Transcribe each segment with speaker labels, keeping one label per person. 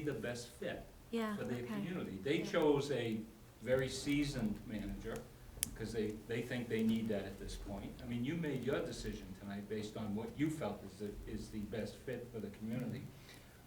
Speaker 1: be the best fit
Speaker 2: Yeah,
Speaker 1: for their
Speaker 2: okay.
Speaker 1: community. They chose a very seasoned manager, because they, they think they need that at this point. I mean, you made your decision tonight based on what you felt is the, is the best fit for the community.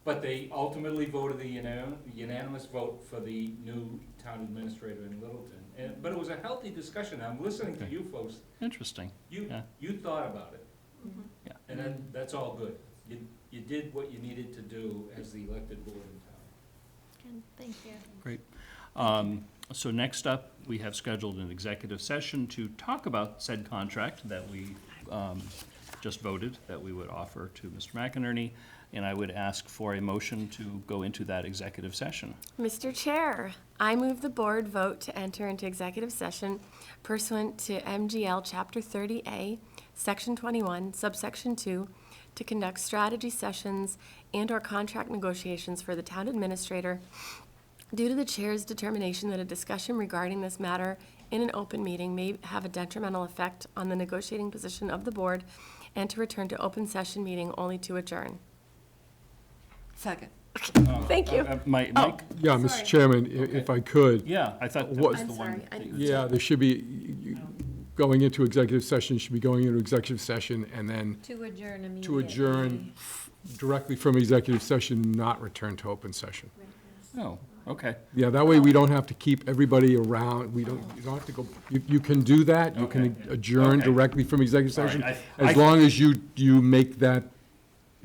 Speaker 1: But they ultimately voted the unan- unanimous vote for the new town administrator in Littleton. And, but it was a healthy discussion, I'm listening to you folks,
Speaker 3: Interesting.
Speaker 1: you,
Speaker 3: Yeah.
Speaker 1: you thought about it,
Speaker 2: Mhm.
Speaker 1: and that, that's all good. You, you did what you needed to do as the elected board in town.
Speaker 2: Good, thank you.
Speaker 3: Um, So next up, we have scheduled an executive session to talk about said contract that we um, just voted, that we would offer to Mr. McInerney, and I would ask for a motion to go into that executive session.
Speaker 4: Mr. Chair, I move the board vote to enter into executive session pursuant to MGL Chapter 30A, Section 21, Subsection 2, to conduct strategy sessions and/or contract negotiations for the town administrator due to the chair's determination that a discussion regarding this matter in an open meeting may have a detrimental effect on the negotiating position of the board, and to return to open session meeting only to adjourn.
Speaker 5: Second.
Speaker 4: Thank you. Oh.
Speaker 3: Uh, Mike, Mike,
Speaker 6: Yeah, Mr. Chairman, i- if I could,
Speaker 3: yeah, I thought that
Speaker 6: What-
Speaker 3: was the one.
Speaker 4: I'm sorry, I-
Speaker 3: that you-
Speaker 6: yeah, there should be, you- you- going into executive session, should be going into executive session and then
Speaker 2: To adjourn immediately.
Speaker 6: to adjourn directly from executive session, not return to open session.
Speaker 3: Oh, okay.
Speaker 6: Yeah, that way we don't have to keep everybody around, we don't, you don't have to go, you, you can do that, you can
Speaker 3: Okay.
Speaker 6: adjourn
Speaker 3: Okay.
Speaker 6: directly from executive
Speaker 3: All right,
Speaker 6: session,
Speaker 3: I- I-
Speaker 6: as long as you, you make that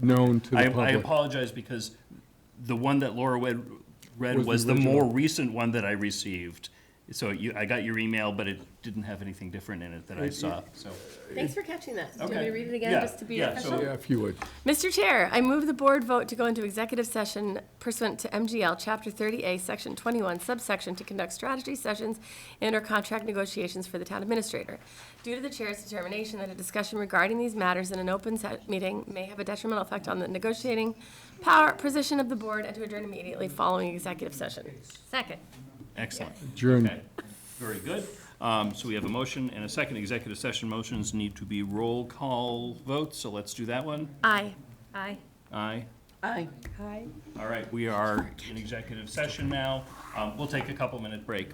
Speaker 6: known to
Speaker 3: I,
Speaker 6: the
Speaker 3: I
Speaker 6: public.
Speaker 3: apologize because the one that Laura read, read
Speaker 6: Was the
Speaker 3: was the more
Speaker 6: original.
Speaker 3: recent one that I received. So you, I got your email, but it didn't have anything different in it that I saw, so.
Speaker 4: Thanks for catching that. Do you want me
Speaker 3: Okay.
Speaker 4: to read it again,
Speaker 3: Yeah,
Speaker 4: just to be
Speaker 3: yeah,
Speaker 4: official?
Speaker 3: so-
Speaker 6: Yeah, if you would.
Speaker 4: Mr. Chair, I move the board vote to go into executive session pursuant to MGL Chapter 30A, Section 21, subsection, to conduct strategy sessions and/or contract negotiations for the town administrator. Due to the chair's determination that a discussion regarding these matters in an open set meeting may have a detrimental effect on the negotiating power position of the board and to adjourn immediately following executive session. Second.
Speaker 3: Excellent.
Speaker 6: Adjourn.
Speaker 3: Okay, very good. Um, So we have a motion and a second. Executive session motions need to be roll call votes, so let's do that one.
Speaker 4: Aye.
Speaker 2: Aye.
Speaker 3: Aye.
Speaker 5: Aye.
Speaker 3: All right, we are in executive session now. Um, We'll take a couple-minute break.